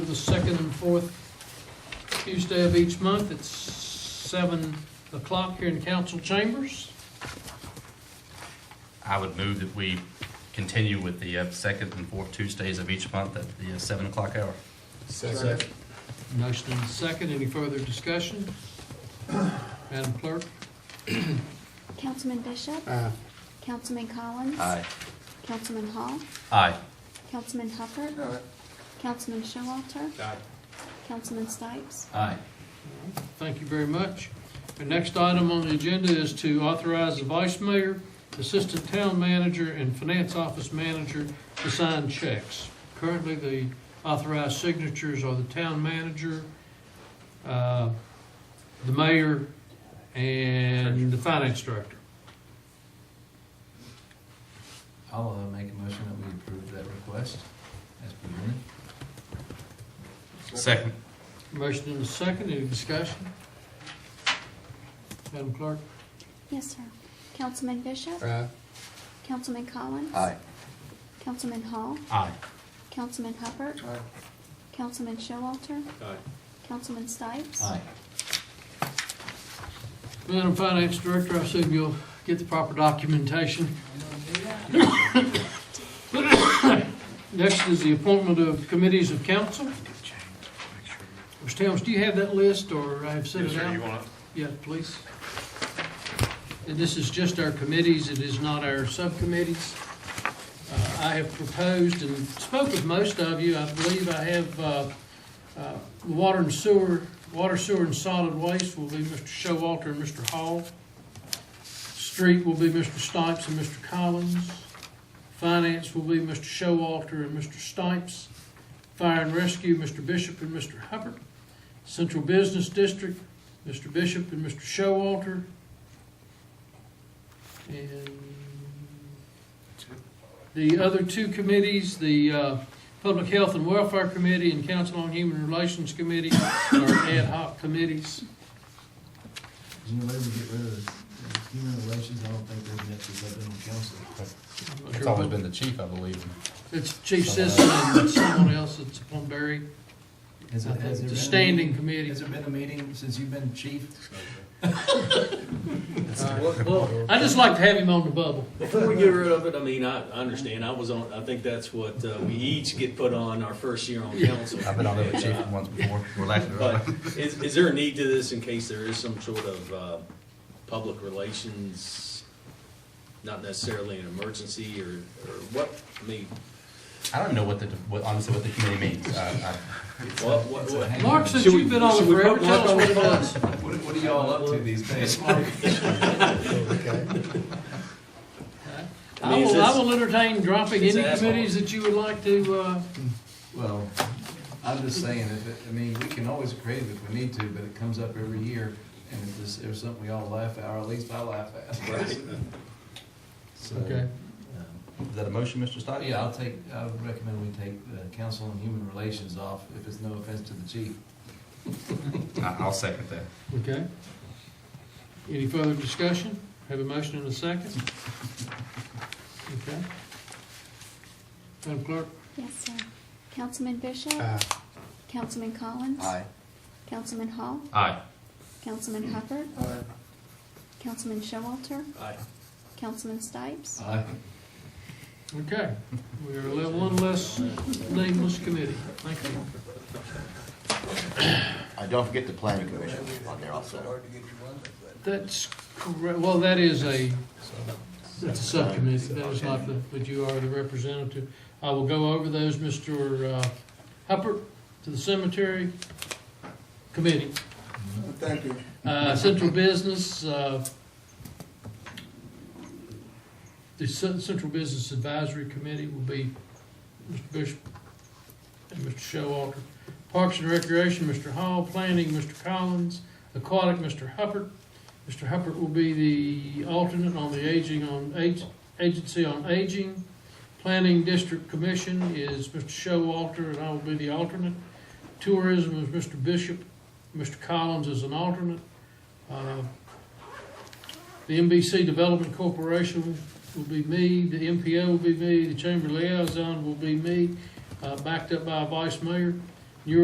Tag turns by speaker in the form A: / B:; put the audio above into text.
A: the second and fourth Tuesday of each month at seven o'clock here in council chambers.
B: I would move that we continue with the uh, second and fourth Tuesdays of each month at the uh, seven o'clock hour.
C: Second.
A: Motion and second, any further discussion? Madam Clerk?
D: Councilman Bishop,
C: Aye.
D: Councilman Collins. Councilman Hall,
B: Aye.
D: Councilman Hubbard, Councilman Showalter,
C: Aye.
D: Councilman Stipes.
B: Aye.
A: Thank you very much. Our next item on the agenda is to authorize the vice mayor, assistant town manager, and finance office manager to sign checks. Currently, the authorized signatures are the town manager, uh, the mayor, and the finance director.
E: I'll uh, make a motion that we approve that request as presented.
B: Second.
A: Motion and a second, any discussion? Madam Clerk?
D: Yes, sir. Councilman Bishop,
C: Aye.
D: Councilman Collins. Councilman Hall,
B: Aye.
D: Councilman Hubbard,
C: Aye.
D: Councilman Showalter,
C: Aye.
D: Councilman Stipes.
E: Aye.
A: Madam Finance Director, I assume you'll get the proper documentation. Next is the appointment of committees of council. Mr. Towns, do you have that list, or I have sent it out?
C: want
A: Yeah, please. And this is just our committees, it is not our subcommittees. Uh, I have proposed and spoke with most of you, I believe I have, uh, uh, the water and sewer, water, sewer and solid waste will be Mr. Showalter and Mr. Hall. Street will be Mr. Stipes and Mr. Collins. Finance will be Mr. Showalter and Mr. Stipes. Fire and rescue, Mr. Bishop and Mr. Hubbard. Central Business District, Mr. Bishop and Mr. Showalter. And the other two committees, the uh, Public Health and Welfare Committee and Council on Human Relations Committee are ad hoc committees.
E: Is there any way we get rid of the human relations? I don't think there's an extra up on council.
B: It's always been the chief, I believe.
A: It's Chief Sisson and someone else that's upon Barry, Uh,
E: Has there- has there been
A: the
E: a
A: standing
E: meeting-
A: committee.
E: Has there been a meeting since you've been chief?
A: Well, I just like to have him on the bubble.
F: Before we get rid of it, I mean, I I understand, I was on, I think that's what, uh, we each get put on our first year on council.
B: I've been on the
F: And,
B: chief
F: uh,
B: once before. We're lacking.
F: But uh, is, is there a need to this in case there is some sort of, uh, public relations, not necessarily an emergency or, or what, I mean,
B: I don't know what the, what- honestly, what the committee means. Uh,
F: what, what,
E: It's a
F: what?
E: hang-
A: Mark, since
F: Should we-
A: you've been on
F: should we
A: forever,
F: put
A: tell
F: Mark
A: us
F: on
A: what
F: the
A: it was.
E: What what are y'all up to these days?
F: I
A: I
F: mean, is
A: will, I
F: this-
A: will entertain dropping
F: it's
A: any
F: asshole.
A: committees that you would like to, uh,
E: Well, I'm just saying, if, it- I mean, we can always create it if we need to, but it comes up every year. And if this, there's something we all laugh at, or at least I laugh at. So,
A: Okay.
E: um,
B: I- Is that a motion, Mr. Stock?
E: Yeah, I'll take, I would recommend we take uh, council and human relations off, if it's no offense to the chief.
B: I- I'll second that.
A: okay? Any further discussion? Have a motion and a second? Okay. Madam Clerk?
D: Yes, sir. Councilman Bishop,
C: Aye.
D: Councilman Collins. Councilman Hall,
B: Aye.
D: Councilman Hubbard,
C: Aye.
D: Councilman Showalter,
F: I-
D: Councilman Stipes.
E: Aye.
A: Okay, we are le- one less nameless committee. Thank you.
G: Uh, don't forget the planning commission on there also.
A: That's correct, well, that is a, that's a subcommittee, that is not the, but you are the representative. I will go over those, Mr. uh, Huppert, to the cemetery committee.
C: Thank you.
A: Uh, Central Business, uh, the Cen- Central Business Advisory Committee will be Mr. Bishop and Mr. Showalter. Parks and Recreation, Mr. Hall. Planning, Mr. Collins. Aquatic, Mr. Huppert. Mr. Huppert will be the alternate on the Aging on, Ag- Agency on Aging. Planning District Commission is Mr. Showalter, and I will be the alternate. Tourism is Mr. Bishop. Mr. Collins is an alternate. Uh, The NBC Development Corporation will be me, the MPO will be me, the Chamber Liaison will be me, uh, backed up by a vice mayor.